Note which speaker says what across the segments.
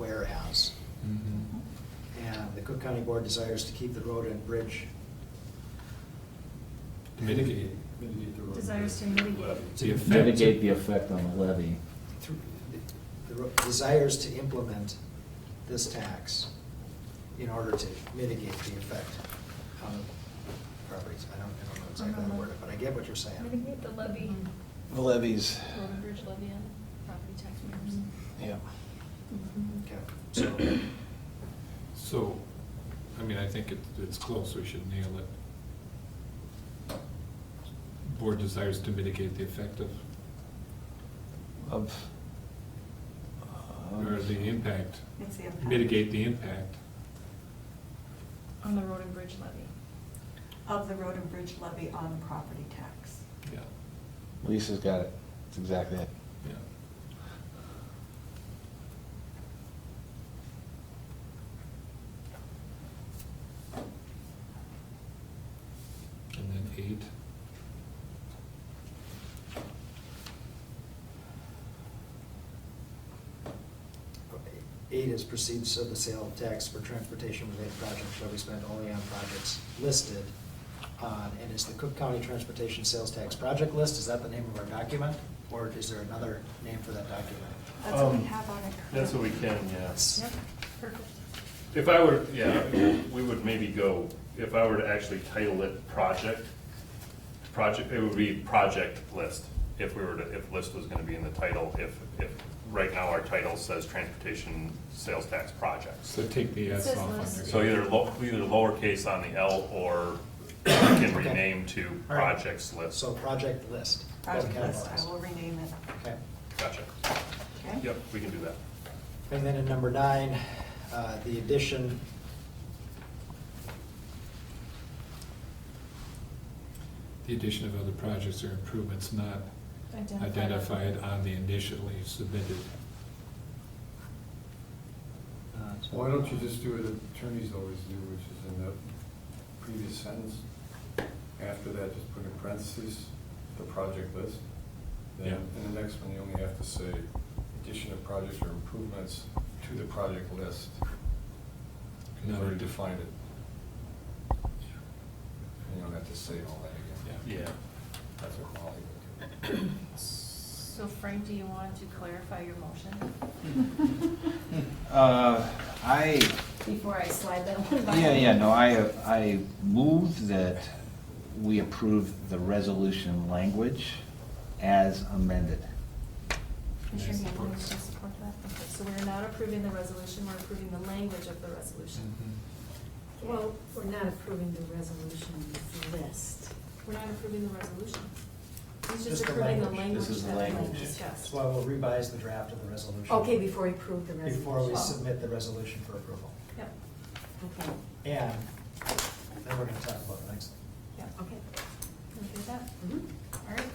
Speaker 1: Mm-hmm.
Speaker 2: Cook County Board desires to keep the road and bridge.
Speaker 1: To mitigate, mitigate the road.
Speaker 3: Desires to mitigate.
Speaker 1: The effect.
Speaker 4: Mitigate the effect on the levy.
Speaker 2: through- the ro- Desires to implement this tax in order to mitigate the effect on properties. I don't, I don't know exactly how to word it, but I get what you're saying.
Speaker 3: Mitigate the levy,
Speaker 5: The levies,
Speaker 3: road and bridge levy on property tax matters.
Speaker 5: yeah.
Speaker 2: Okay, so,
Speaker 1: So, I mean, I think it, it's close, we should nail it. Board desires to mitigate the effect of,
Speaker 5: Of. uh,
Speaker 4: Oh,
Speaker 1: or the impact,
Speaker 6: It's the impact.
Speaker 1: mitigate the impact.
Speaker 3: On the road and bridge levy.
Speaker 6: Of the road and bridge levy on property tax.
Speaker 1: Yeah,
Speaker 5: Lisa's got it. That's exactly it.
Speaker 1: yeah. And then eight,
Speaker 2: eight is proceeds of the sale of tax for transportation-related projects shall be spent only on projects listed on, and is the Cook County Transportation Sales Tax Project List, is that the name of our document? Or is there another name for that document?
Speaker 6: That's what we
Speaker 7: Um,
Speaker 6: have on it.
Speaker 7: That's what we can, yes.
Speaker 2: That's,
Speaker 3: Perfect.
Speaker 7: If I were, yeah, we would maybe go, if I were to actually title it project, project, it would be project list. If we were to, if list was gonna be in the title, if, if, right now our title says transportation sales tax projects.
Speaker 1: so take the
Speaker 3: It
Speaker 1: S
Speaker 3: says
Speaker 1: off on
Speaker 3: list.
Speaker 1: there.
Speaker 7: So either lo, either lowercase on the L or we can
Speaker 2: Okay.
Speaker 7: rename to
Speaker 2: All right.
Speaker 7: projects list.
Speaker 2: so project list.
Speaker 6: Project
Speaker 2: Wasn't
Speaker 6: list, I
Speaker 2: capitalized.
Speaker 6: will rename it,
Speaker 2: Okay.
Speaker 7: Gotcha.
Speaker 6: okay?
Speaker 7: Yep, we can do that.
Speaker 2: And then in number nine, uh, the addition.
Speaker 1: The addition of other projects or improvements not
Speaker 3: Identified.
Speaker 1: identified uh, on the initially submitted.
Speaker 2: uh,
Speaker 8: Why don't you just do what attorneys always do, which is in the previous sentence, after that, just put in parentheses, the project list.
Speaker 1: Yeah.
Speaker 8: Then in the next one, you only have to say addition of projects or improvements to the project list. You
Speaker 1: No.
Speaker 8: already defined it, and you don't have to say all that again.
Speaker 1: Yeah.
Speaker 8: That's what Molly would do.
Speaker 3: So Frank, do you want to clarify your motion?
Speaker 4: Uh, I,
Speaker 9: before I slide that one by.
Speaker 4: yeah, yeah, no, I, I move that we approve the resolution language as amended.
Speaker 3: Commissioner
Speaker 1: Nice.
Speaker 3: Hamlin, would you support that? Okay, So we're not approving the resolution, we're approving the language of the resolution.
Speaker 1: Mm-hmm.
Speaker 9: Well, we're not approving the resolution list.
Speaker 3: We're not approving the resolution. He's
Speaker 2: Just
Speaker 3: just
Speaker 2: the
Speaker 3: approving the
Speaker 2: language.
Speaker 3: language
Speaker 4: This is the
Speaker 3: that we
Speaker 4: language.
Speaker 3: discussed.
Speaker 2: So I will revise the draft of the resolution.
Speaker 9: Okay, before we approve the resolution.
Speaker 2: Before
Speaker 6: Oh.
Speaker 2: we submit the resolution for approval.
Speaker 3: Yep,
Speaker 9: Okay,
Speaker 2: And then we're gonna talk about the next
Speaker 3: yep.
Speaker 9: okay.
Speaker 3: You Okay with that?
Speaker 9: Mhm.
Speaker 3: All right.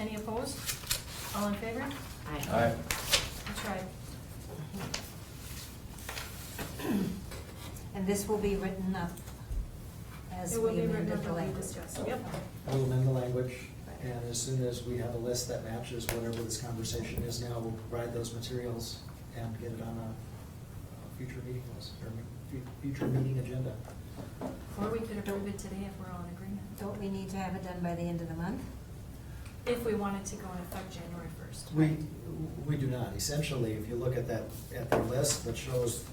Speaker 3: Any opposed? All in favor?
Speaker 9: Aye.
Speaker 3: I tried.
Speaker 9: And this will be written up as
Speaker 3: It will
Speaker 9: we
Speaker 3: be written
Speaker 9: amended
Speaker 3: up
Speaker 9: the
Speaker 3: and we
Speaker 9: language.
Speaker 3: discussed. Yep.
Speaker 2: thing. We'll amend the language, and as soon as we have a list that matches whatever this conversation is now, we'll provide those materials and get it on a a future meeting list, or fu- future meeting agenda.
Speaker 3: Or we could approve it today if we're all in agreement.
Speaker 9: Don't we need to have it done by the end of the month?
Speaker 3: If we wanted to go in effect January first.
Speaker 2: We, we do not. Essentially, if you look at that, at the list that shows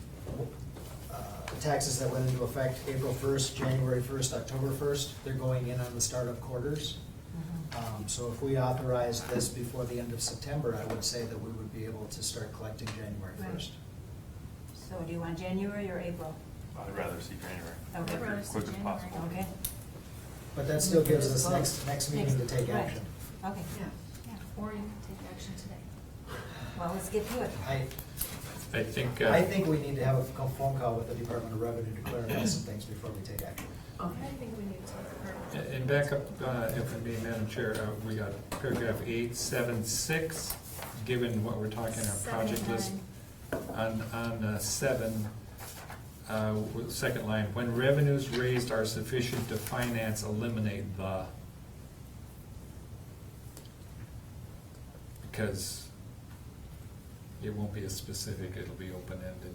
Speaker 2: uh, taxes that went into effect April 1st, January 1st, October 1st, they're going in on the start of quarters.
Speaker 9: Mhm.
Speaker 2: Um, So if we authorized this before the end of September, I would say that we would be able to start collecting January
Speaker 9: Right.
Speaker 2: 1st.
Speaker 9: So do you want January or April?
Speaker 7: I'd rather see January.
Speaker 9: Okay.
Speaker 3: I'd rather see
Speaker 7: Quick as
Speaker 3: January.
Speaker 7: possible.
Speaker 9: Okay,
Speaker 2: But that still gives us next, next meeting to take
Speaker 9: Right.
Speaker 2: action.
Speaker 9: okay.
Speaker 3: Or you could take action today.
Speaker 9: Well, let's get to it.
Speaker 2: I,
Speaker 1: I think. uh,
Speaker 2: I think we need to have a phone call with the Department of Revenue to clarify some things before we take action.
Speaker 3: I think we need to take a
Speaker 1: And back up, uh, if I may, Madam Chair, uh, we got paragraph eight, seven, six, given what we're talking, our project list. On, on uh, seven, uh, w- second line, when revenues raised are sufficient to finance, eliminate the. Because it won't be a specific, it'll be open-ended.